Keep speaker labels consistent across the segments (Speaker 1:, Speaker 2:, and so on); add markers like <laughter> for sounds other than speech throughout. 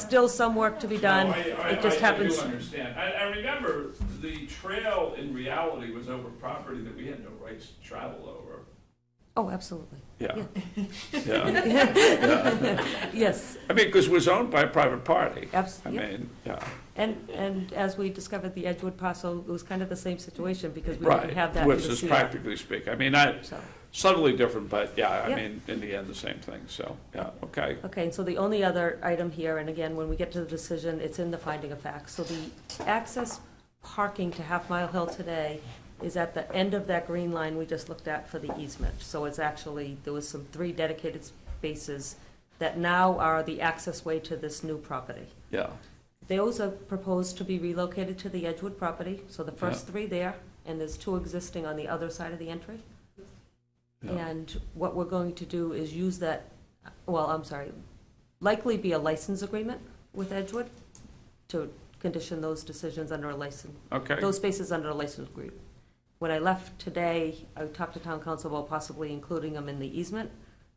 Speaker 1: Still some work to be done.
Speaker 2: No, I- I-
Speaker 1: It just happens.
Speaker 2: I do understand. I, I remember the trail in reality was over property that we had no rights to travel over.
Speaker 1: Oh, absolutely. <laughs>
Speaker 2: Yeah, yeah.
Speaker 1: Yes,
Speaker 2: I mean, because it was owned by a private party. I
Speaker 1: absolutely.
Speaker 2: mean, yeah,
Speaker 1: And, and as we discovered the Edgewood parcel, it was kind of the same situation because we didn't have
Speaker 2: right,
Speaker 1: that in
Speaker 2: which
Speaker 1: the
Speaker 2: is
Speaker 1: CR.
Speaker 2: practically speak. I mean, I,
Speaker 1: So,
Speaker 2: subtly different, but yeah, I
Speaker 1: Yep.
Speaker 2: mean, in the end, the same thing, so, yeah, okay.
Speaker 1: okay, and so the only other item here, and again, when we get to the decision, it's in the finding of facts. So the access parking to Half Mile Hill today is at the end of that green line we just looked at for the easement. So it's actually, there was some three dedicated spaces that now are the access way to this new property.
Speaker 2: Yeah,
Speaker 1: Those are proposed to be relocated to the Edgewood property, so the first three there, and there's two existing on the other side of the entry.
Speaker 2: Yeah.
Speaker 1: And what we're going to do is use that, well, I'm sorry, likely be a license agreement with Edgewood to condition those decisions under a license,
Speaker 2: okay,
Speaker 1: those spaces under a license agreement. When I left today, I talked to town council about possibly including them in the easement.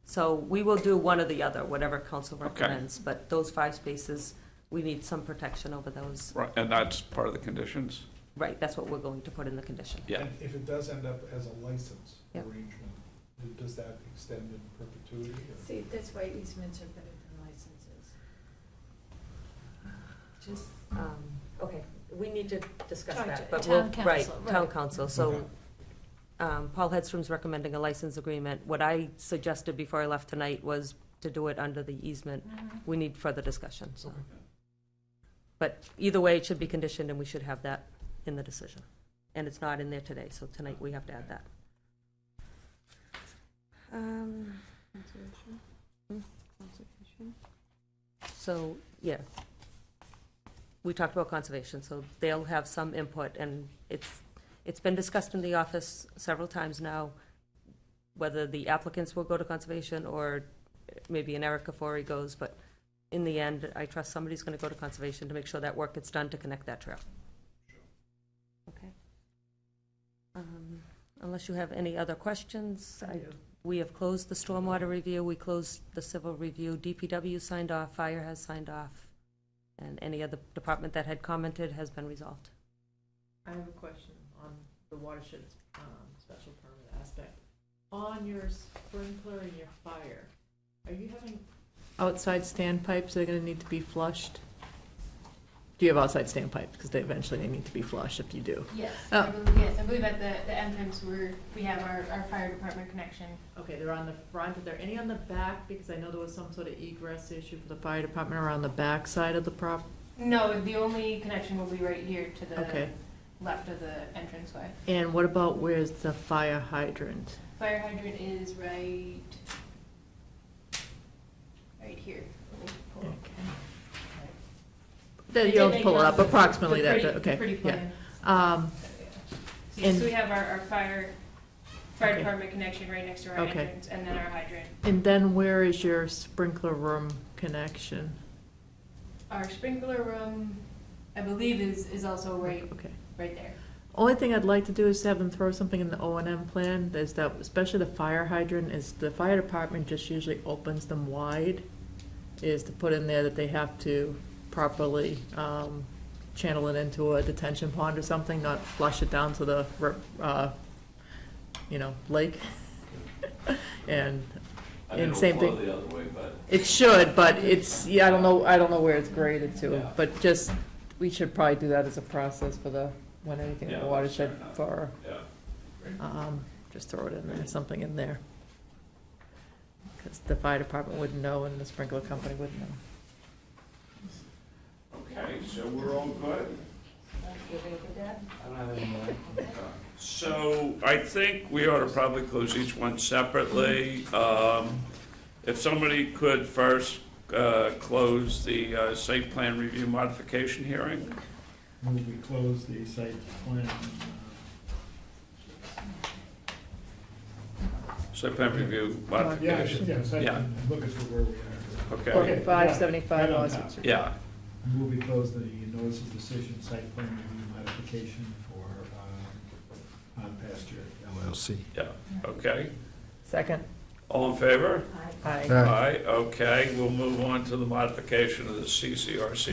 Speaker 1: So we will do one or the other, whatever council recommends, but those five spaces, we need some protection over those.
Speaker 2: right, and that's part of the conditions?
Speaker 1: Right, that's what we're going to put in the condition.
Speaker 2: Yeah,
Speaker 3: And If it does end up as a license
Speaker 1: Yep.
Speaker 3: arrangement, then does that extend in perpetuity? or-
Speaker 4: See, that's why easements are better than licenses.
Speaker 1: Just, um, okay, we need to discuss
Speaker 4: Talk
Speaker 1: that,
Speaker 4: to
Speaker 1: but we'll,
Speaker 4: town
Speaker 1: right,
Speaker 4: council,
Speaker 1: town
Speaker 4: right.
Speaker 1: council, so,
Speaker 3: Okay.
Speaker 1: um, Paul Hedstrom's recommending a license agreement. What I suggested before I left tonight was to do it under the easement.
Speaker 5: Mm-hmm.
Speaker 1: We need further discussion, so.
Speaker 3: Okay.
Speaker 1: But either way, it should be conditioned, and we should have that in the decision. And it's not in there today, so tonight we have to add that. Um,
Speaker 6: Conservation?
Speaker 1: Hmm?
Speaker 6: Conservation?
Speaker 1: So, yeah. We talked about conservation, so they'll have some input, and it's, it's been discussed in the office several times now, whether the applicants will go to conservation, or maybe an Eric Kafori goes, but in the end, I trust somebody's gonna go to conservation to make sure that work gets done to connect that trail. Okay. Um, Unless you have any other questions, I we have closed the stormwater review, we closed the civil review, DPW signed off, fire has signed off, and any other department that had commented has been resolved.
Speaker 5: I have a question on the watershed um, special permit aspect. On your sprinkler and your fire, are you having outside standpipes that are gonna need to be flushed? Do you have outside standpipes? Because they eventually they need to be flushed if you do.
Speaker 7: Yes,
Speaker 5: Oh.
Speaker 7: I believe, yes, I believe at the, the end times we're, we have our, our fire department connection.
Speaker 5: Okay, they're on the front. Are there any on the back? Because I know there was some sort of egress issue for the fire department around the back side of the prop.
Speaker 7: No, the only connection will be right here to the
Speaker 5: Okay.
Speaker 7: left of the entranceway.
Speaker 5: And what about where's the fire hydrant?
Speaker 7: Fire hydrant is right, right here. Let me pull
Speaker 5: Okay.
Speaker 7: up.
Speaker 5: There,
Speaker 7: They
Speaker 5: You'll
Speaker 7: make
Speaker 5: pull it up
Speaker 7: the- the
Speaker 5: approximately that,
Speaker 7: pretty-
Speaker 5: okay,
Speaker 7: Pretty
Speaker 5: yeah.
Speaker 7: plan.
Speaker 5: Um,
Speaker 7: So, yeah. So
Speaker 5: And-
Speaker 7: so we have our, our fire, fire
Speaker 5: Okay.
Speaker 7: department connection right next to our
Speaker 5: Okay.
Speaker 7: entrance, and then our hydrant.
Speaker 5: And then where is your sprinkler room connection?
Speaker 7: Our sprinkler room, I believe, is, is also right,
Speaker 5: Okay.
Speaker 7: right there.
Speaker 5: Only thing I'd like to do is have them throw something in the O and M plan, is that, especially the fire hydrant, is the fire department just usually opens them wide, is to put in there that they have to properly, um, channel it into a detention pond or something, not flush it down to the, ri- uh, you know, lake. <laughs> And
Speaker 8: I
Speaker 5: And
Speaker 8: mean,
Speaker 5: same
Speaker 8: it'll
Speaker 5: thing-
Speaker 8: flow the other way, but
Speaker 5: It should, but it's, yeah, I don't know, I don't know where it's graded to,
Speaker 8: Yeah.
Speaker 5: but just, we should probably do that as a process for the, when anything in
Speaker 8: Yeah,
Speaker 5: the
Speaker 8: that's
Speaker 5: watershed
Speaker 8: fair enough.
Speaker 5: for,
Speaker 8: yeah.
Speaker 5: um, just throw it in there, something in there. Because the fire department wouldn't know and the sprinkler company wouldn't know.
Speaker 2: okay, so we're all good?
Speaker 8: I don't have any more.
Speaker 2: So I think we ought to probably close each one separately. Um, If somebody could first uh, close the uh, site plan review modification hearing?
Speaker 3: Move we close the site plan. uh,
Speaker 2: Site plan review
Speaker 3: uh, Yeah, I
Speaker 2: modification?
Speaker 3: should, yeah, site
Speaker 2: Yeah.
Speaker 3: plan, look at where we are.
Speaker 2: Okay,
Speaker 3: Okay.
Speaker 5: Forty-five
Speaker 3: yeah,
Speaker 5: seventy-five
Speaker 3: right on
Speaker 5: Osgood
Speaker 3: top.
Speaker 5: Street.
Speaker 2: yeah,
Speaker 3: Move we close the notice of decision site plan review modification for um, Pond Pasture LLC.
Speaker 2: yeah, okay.
Speaker 5: Second,
Speaker 2: All in favor?
Speaker 5: Aye.
Speaker 2: Aye, okay, we'll move on to the modification of the CCRC